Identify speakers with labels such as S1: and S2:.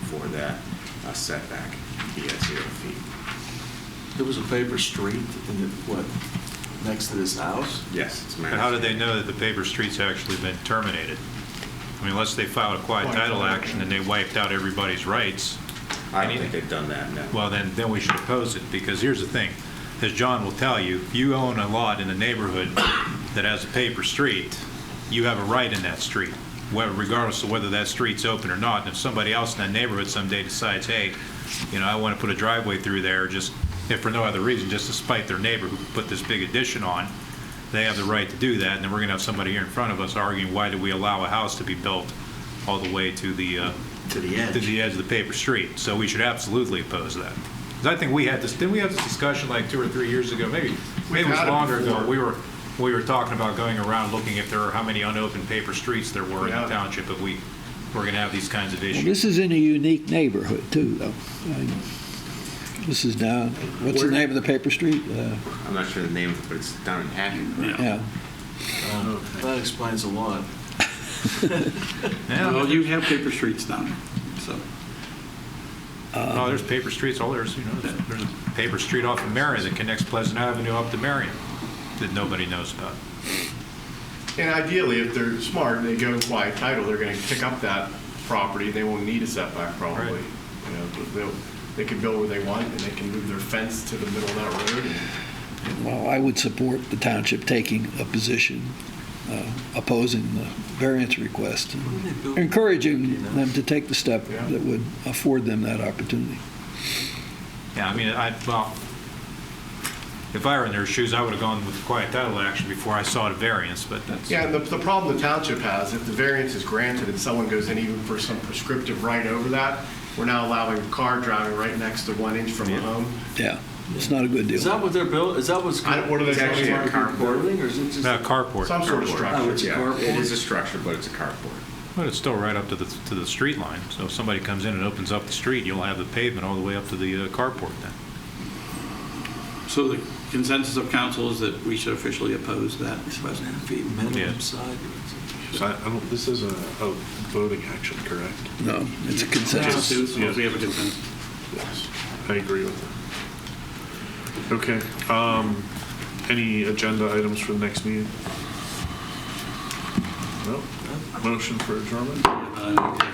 S1: for that uh, setback, he has zero feet.
S2: There was a paper street in the, what, next to this house?
S1: Yes, it's
S3: But
S1: managed.
S3: how do they know that the paper street's actually been terminated? I mean, unless they filed a quiet title action and they wiped out everybody's rights,
S1: I don't think they've done that, no.
S3: well, then, then we should oppose it, because here's the thing, as John will tell you, if you own a lot in a neighborhood that has a paper street, you have a right in that street, whether- regardless of whether that street's open or not, and if somebody else in that neighborhood someday decides, hey, you know, I want to put a driveway through there, just, if for no other reason, just to spite their neighbor who put this big addition on, they have the right to do that, and then we're going to have somebody here in front of us arguing, why do we allow a house to be built all the way to the, uh,
S2: To the
S3: to
S2: edge.
S3: the edge of the paper street, so we should absolutely oppose that. 'Cause I think we had this, didn't we have this discussion like two or three years ago, maybe, maybe it was
S4: had it
S3: longer ago,
S4: before.
S3: we were, we were talking about going around looking if there are, how many unopened paper streets there were in
S4: Yeah.
S3: the township, if we, we're gonna have these kinds of
S5: Well,
S3: issues.
S5: This is in a unique neighborhood too, though. I- This is down, what's the
S1: Where-
S5: name of the paper street? Uh,
S1: I'm not sure the name of it, but it's down in Hackett. right?
S5: Yeah.
S2: Um, That explains a lot.
S3: Yeah,
S4: Well, you have paper streets down there, so.
S3: oh, there's paper streets, all there's, you know, there's- there's a paper street off of Marion that connects Pleasant Avenue up to Marion that nobody knows about.
S6: And ideally, if they're smart and they go and quiet title, they're going to pick up that property. They won't need a setback probably.
S3: Right.
S6: You know, but they'll, they can build where they want and they can move their fence to the middle of that road. and-
S5: Well, I would support the township taking a position uh, opposing the variance request, encouraging them to take the step
S6: Yeah.
S5: that would afford them that opportunity.
S3: Yeah, I mean, I, well, if I were in their shoes, I would have gone with the quiet title action before I saw the variance, but that's.
S6: Yeah, and the, the problem the township has, if the variance is granted and someone goes in even for some prescriptive right over that, we're now allowing car driving right next to one inch from the home.
S5: Yeah, it's not a good
S2: Is that
S5: deal.
S2: what they're building, is that what's?
S6: I don't- what are they-
S1: It's actually a carport.
S2: Building, or is it just?
S3: Not a carport.
S6: Some sort of
S2: Oh,
S6: structure.
S2: it's a
S1: Yeah,
S2: carport?
S1: It is a structure, but it's a carport.
S3: But it's still right up to the, to the street line, so if somebody comes in and opens up the street, you'll have the pavement all the way up to the uh, carport then.
S4: So the consensus of council is that we should officially oppose that request.
S3: Yeah.
S2: Minimum side.
S7: So I I don't, this is a a voting action, correct?
S5: No, it's a
S4: Just
S5: consensus.
S4: do, so if we have a consensus.
S7: Yes. I agree with that. Okay, um, any agenda items for the next meeting? No? Motion for adjournment?
S4: Uh,